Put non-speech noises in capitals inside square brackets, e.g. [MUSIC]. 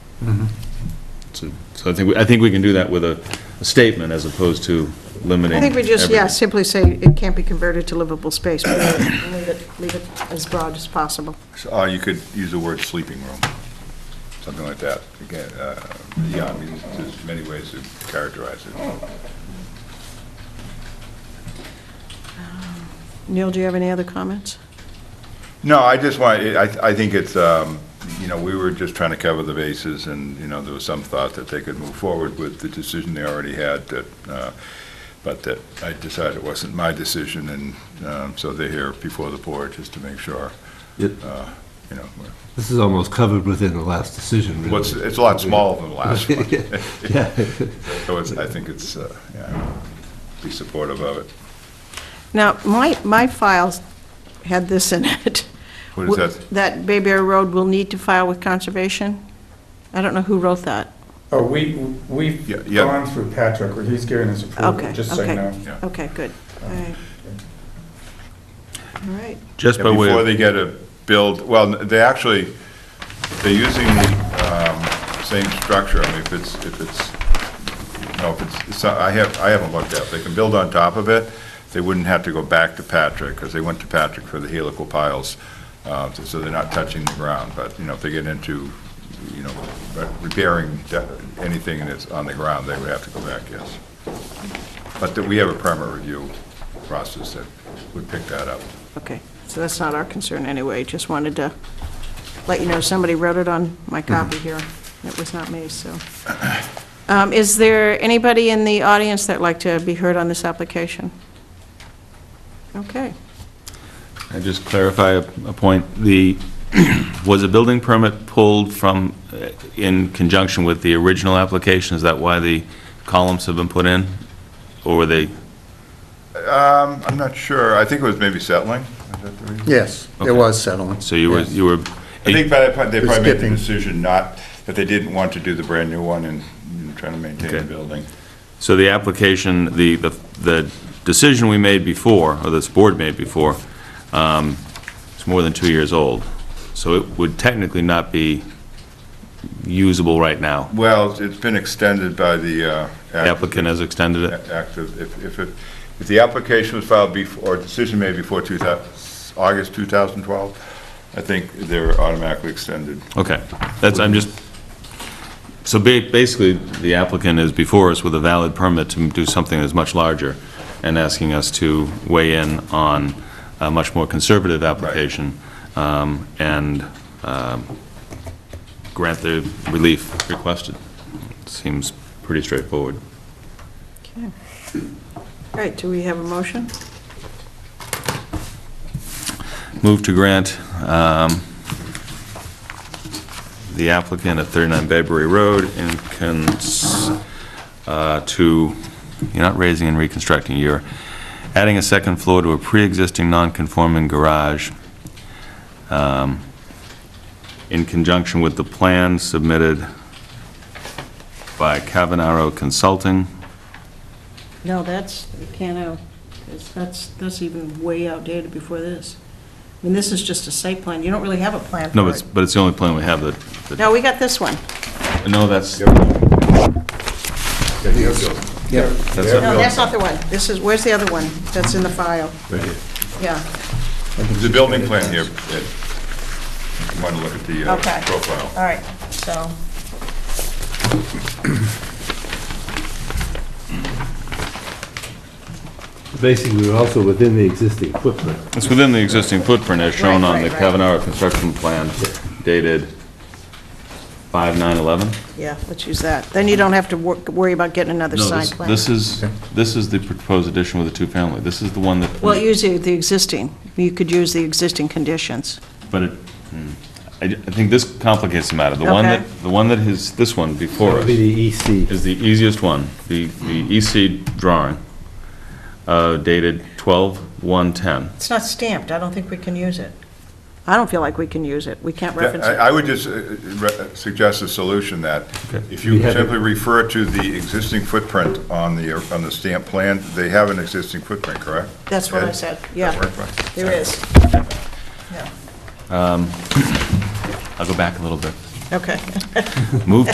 So so I think, we- I think we can do that with a a statement as opposed to limiting. I think we just, yeah, everything. simply say it can't be converted to livable space, but leave it, leave it as broad as possible. Uh, you could use the word sleeping room, something like that. Again, uh, yeah, I mean, there's many ways to characterize it. Neil, do you have any other comments? No, I just want, I, I think it's, um, you know, we were just trying to cover the bases, and, you know, there was some thought that they could move forward with the decision they already had, that, uh, but that I decided it wasn't my decision, and um, so they're here before the board, just to make sure, It- uh, you know, This is almost covered within the last decision, really. what's, it's a lot smaller than the last one. Yeah. [LAUGHS] So it's, I think it's, uh, yeah, be supportive of it. Now, my, my files had this in it. What is that? That Bayberry Road will need to file with conservation. I don't know who wrote that. Oh, we, we've Yeah, yeah. gone through Patrick, where he's given his approval, Okay, just so you know. okay, Yeah. okay, good. All right. All right. Just Yeah, by way Before of, they get a build, well, they actually, they're using the um, same structure, I mean, if it's, if it's, no, if it's- it's, not- I have, I haven't looked at it. They can build on top of it, they wouldn't have to go back to Patrick, because they went to Patrick for the helical piles, uh, so they're not touching the ground, but, you know, if they get into, you know, repairing de- anything that's on the ground, they would have to go back, yes. But that we have a permit review process that would pick that up. Okay, so that's not our concern anyway, just wanted to let you know, somebody wrote it on my Mm-hmm. copy here, it was not me, so. [CLEARS THROAT] Um, Is there anybody in the audience that'd like to be heard on this application? Okay, I just clarify a a point. The, [CLEARS THROAT] was a building permit pulled from, uh, in conjunction with the original application? Is that why the columns have been put in? Or were they, Um, I'm not sure. I think it was maybe settling. Is that the reason? Yes, Okay. it was settlement. so you were, Yes. you were, I think by that point, they They're probably made the skipping. decision not, that they didn't want to do the brand-new one and you know, trying to maintain the Okay. building. so the application, the, the the decision we made before, or this board made before, um, is more than two years old. So it would technically not be usable right now. Well, it's been extended by the. uh, The applicant has extended it. Act of, if, if, it- if the application was filed before, or decision made before 2000, August 2012, I think they're automatically extended. Okay, that's, I'm just, so ba- basically, the applicant is before us with a valid permit to do something that's much larger, and asking us to weigh in on a much more conservative application, um, and um, grant the relief requested. Seems pretty straightforward. okay. All right, do we have a motion? Move to grant um, the applicant at 39 Bedbury Road in cons, uh, to, you're not raising and reconstructing, you're adding a second floor to a pre-existing non-conforming garage um, in conjunction with the plan submitted by Cavanaro Consulting. No, that's, you can't, uh, it's- that's, that's even way outdated before this. I mean, this is just a site plan, you don't really have a plan No, for but it's, it. but it's the only plan we have that- that, No, we got this one. no, that's, that's No, that's not the one. This is, where's the other one that's in the file? Yeah. There's a building plan here, Ed. You want to look at the uh, Okay. profile. All right, so. Basically, we're also within the existing footprint. It's within the existing footprint as shown on the Right, right, right. Kavanaugh construction plan dated 5/9/11. Yeah, let's use that. Then you don't have to wor- worry about getting another No, side this- plan. This is, this is the proposed addition with the two-family. This is the one that. Well, use the the existing. You could use the existing conditions. But it, hmm. I I think this complicates the matter. The one Okay. that, the one that is, this one before That would us. be the E EC. is the easiest one, the, the EC drawing uh, dated 12/1/10. It's not stamped. I don't think we can use it. I don't feel like we can use it. We can't Yeah, reference it. I I would just uh, re- suggest a solution that Okay. if you We have it. simply refer to the existing footprint on the, on the stamp plan, they have an existing footprint, correct? That's what I Ed? said, yeah. That work, right? There is. Yeah, I'll go back a little bit. okay. Move